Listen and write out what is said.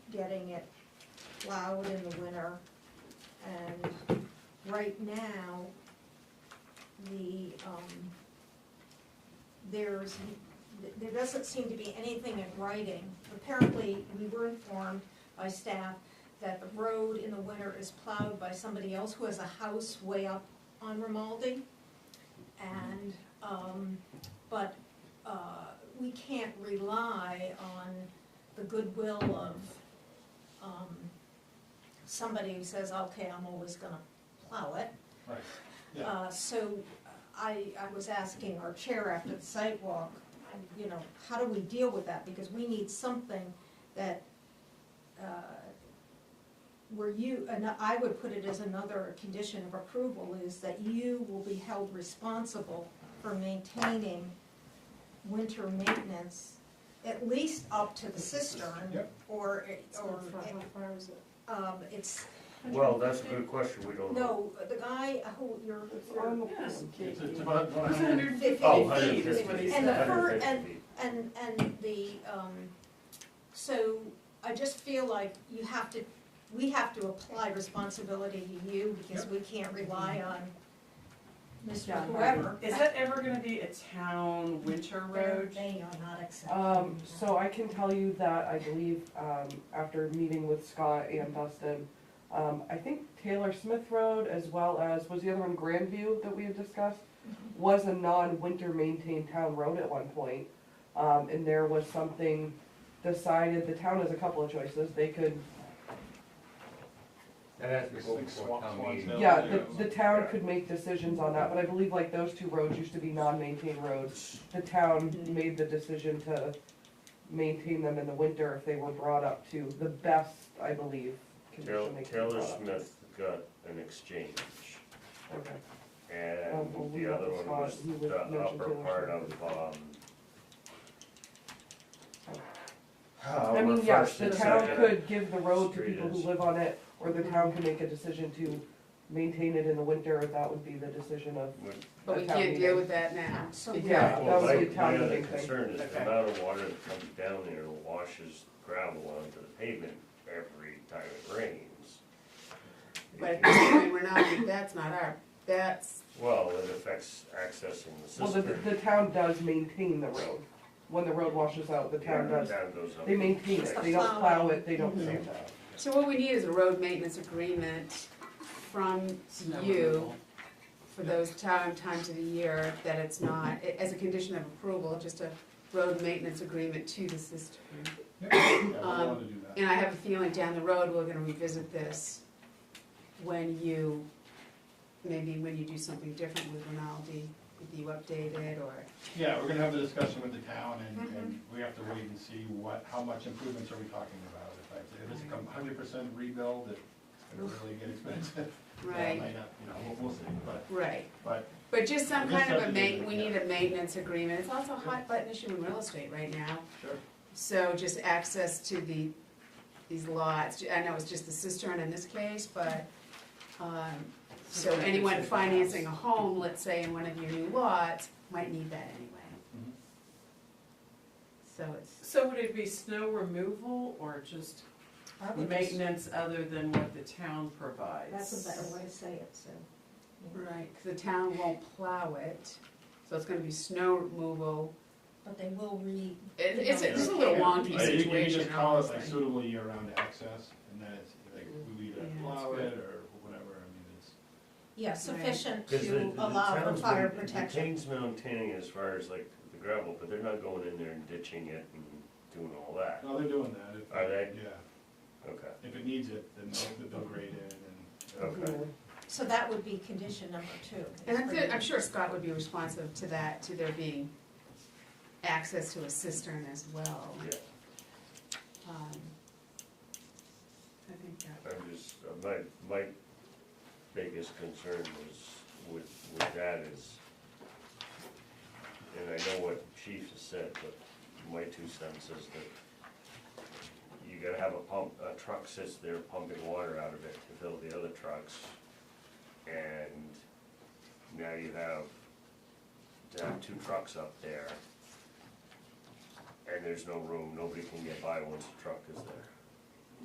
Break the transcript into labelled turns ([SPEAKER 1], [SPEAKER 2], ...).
[SPEAKER 1] getting it plowed in the winter. And right now, the, um, there's, there doesn't seem to be anything in writing. Apparently, we were informed by staff that the road in the winter is plowed by somebody else who has a house way up on Romaldi. And, um, but, uh, we can't rely on the goodwill of, um, somebody who says, okay, I'm always gonna plow it.
[SPEAKER 2] Right,
[SPEAKER 1] Uh, so I, I was asking our chair after the sidewalk, you know, how do we deal with that? Because we need something that, uh, where you, and I would put it as another condition of approval is that you will be held responsible for maintaining winter maintenance, at least up to the cistern,
[SPEAKER 2] Yep.
[SPEAKER 1] or, or,
[SPEAKER 3] far is it?
[SPEAKER 1] um, it's,
[SPEAKER 4] Well, that's a good question, we don't know.
[SPEAKER 1] no, the guy who, your,
[SPEAKER 3] It's
[SPEAKER 1] your
[SPEAKER 3] on the
[SPEAKER 5] Yeah.
[SPEAKER 3] piece of cake.
[SPEAKER 2] It's- it's about- about-
[SPEAKER 4] Oh,
[SPEAKER 5] 150 is what he
[SPEAKER 1] And the
[SPEAKER 5] said.
[SPEAKER 1] fir-
[SPEAKER 4] 150
[SPEAKER 1] and-
[SPEAKER 4] feet.
[SPEAKER 1] And, and the, um, so I just feel like you have to, we have to apply responsibility to you because we can't rely on Mr.
[SPEAKER 3] John
[SPEAKER 1] Whoever.
[SPEAKER 5] Is that ever gonna be a town winter road?
[SPEAKER 1] They are not accepting.
[SPEAKER 3] Um, so I can tell you that I believe, um, after meeting with Scott and Dustin, um, I think Taylor Smith Road as well as, was the other one Grandview that we had discussed? Was a non-winter maintained town road at one point. Um, and there was something decided, the town has a couple of choices, they could,
[SPEAKER 4] That has to go
[SPEAKER 2] Big
[SPEAKER 4] before
[SPEAKER 2] swamp
[SPEAKER 4] town
[SPEAKER 2] swans
[SPEAKER 4] meeting.
[SPEAKER 2] now.
[SPEAKER 3] yeah,
[SPEAKER 2] yeah.
[SPEAKER 3] the, the town could make decisions on that, but I believe like those two roads used to be non-maintained roads. The town
[SPEAKER 5] Mhm.
[SPEAKER 3] made the decision to maintain them in the winter if they were brought up to the best, I believe,
[SPEAKER 4] Tail-
[SPEAKER 3] condition they could be
[SPEAKER 4] Taylor
[SPEAKER 3] brought up to.
[SPEAKER 4] Smith got an exchange,
[SPEAKER 3] Okay.
[SPEAKER 4] and the other one was the upper part of, um,
[SPEAKER 3] I mean,
[SPEAKER 4] over
[SPEAKER 3] yes,
[SPEAKER 4] First
[SPEAKER 3] the
[SPEAKER 4] and
[SPEAKER 3] town
[SPEAKER 4] Second.
[SPEAKER 3] could give the road to
[SPEAKER 4] Street
[SPEAKER 3] people
[SPEAKER 4] is-
[SPEAKER 3] who live on it, or the town can make a decision to maintain it in the winter, that would be the decision of,
[SPEAKER 4] Would-
[SPEAKER 5] But we can't deal with that now.
[SPEAKER 1] So
[SPEAKER 3] Yeah, that
[SPEAKER 4] Well, my,
[SPEAKER 3] was the town
[SPEAKER 4] my other
[SPEAKER 3] meeting thing.
[SPEAKER 4] concern is the
[SPEAKER 5] Okay.
[SPEAKER 4] amount of water that comes down there washes gravel onto the pavement every time it rains.
[SPEAKER 6] But we're not, that's not our, that's,
[SPEAKER 4] Well, it affects access in the
[SPEAKER 3] well, the,
[SPEAKER 4] system.
[SPEAKER 3] the town does maintain the road. When the road washes out, the town does, they maintain
[SPEAKER 1] It's the
[SPEAKER 3] it, they don't
[SPEAKER 1] plowing.
[SPEAKER 3] plow it, they don't
[SPEAKER 4] Mm-hmm.
[SPEAKER 3] sand it.
[SPEAKER 6] so what we need is a road maintenance agreement from you for those time, times of the year that it's not, a- as a condition of approval, just a road maintenance agreement to the system.
[SPEAKER 2] Yeah, I wanted to do that.
[SPEAKER 6] And I have a feeling down the road, we're gonna revisit this when you, maybe when you do something different with Rinaldi, if you update it or,
[SPEAKER 2] Yeah, we're gonna have a discussion with the town and, and
[SPEAKER 6] Mm-hmm.
[SPEAKER 2] we have to wait and see what, how much improvements are we talking about? If I- If it's a hundred percent rebuild, it's gonna really get expensive. Yeah, it
[SPEAKER 6] right,
[SPEAKER 2] might not, You know, we'll, we'll see, but,
[SPEAKER 6] right.
[SPEAKER 2] but,
[SPEAKER 6] But just some
[SPEAKER 2] Just
[SPEAKER 6] kind of a
[SPEAKER 2] something
[SPEAKER 6] ma, we
[SPEAKER 2] to-
[SPEAKER 6] need a maintenance agreement, it's also a hot button issue in real estate right now.
[SPEAKER 2] sure.
[SPEAKER 6] So just access to the, these lots, I know it's just the cistern in this case, but, um, so anyone financing a home, let's say in one of your new lots, might need that anyway.
[SPEAKER 2] Mhm.
[SPEAKER 6] So it's,
[SPEAKER 5] So would it be snow removal or just
[SPEAKER 1] I would just-
[SPEAKER 5] maintenance other than what the town provides?
[SPEAKER 1] That's a better way to say it, so.
[SPEAKER 6] right, 'cause the town won't plow it, so it's gonna be snow removal.
[SPEAKER 1] But they will re,
[SPEAKER 6] It, it's, a- it's a
[SPEAKER 1] Yeah.
[SPEAKER 6] little wonky
[SPEAKER 2] Like, Uh, You can
[SPEAKER 6] situation.
[SPEAKER 2] just call it like
[SPEAKER 6] honestly.
[SPEAKER 2] suitable year-round access and then it's like, we either
[SPEAKER 6] Yeah, it's
[SPEAKER 2] plow
[SPEAKER 5] good.
[SPEAKER 2] it or whatever, I mean, it's.
[SPEAKER 1] yeah, sufficient to allow for
[SPEAKER 4] town's
[SPEAKER 1] fire
[SPEAKER 4] main-
[SPEAKER 1] protection.
[SPEAKER 4] The town's maintaining as far as like the gravel, but they're not going in there and ditching it and doing all that,
[SPEAKER 2] No, they're doing that. If-
[SPEAKER 4] Are they?
[SPEAKER 2] Yeah,
[SPEAKER 4] okay.
[SPEAKER 2] if it needs it, then they'll, they'll grade it and.
[SPEAKER 4] Okay.
[SPEAKER 1] So that would be condition number two.
[SPEAKER 6] And I'm, good- I'm sure Scott would be responsive to that, to there being access to a cistern as well.
[SPEAKER 4] Yeah,
[SPEAKER 6] Um, I think that,
[SPEAKER 4] I'm just, my, my biggest concern was with, with that is, and I know what chief has said, but my two cents is that you gotta have a pump, a truck sits there pumping water out of it to fill the other trucks. And now you have, to have two trucks up there. And there's no room, nobody can get by once the truck is there.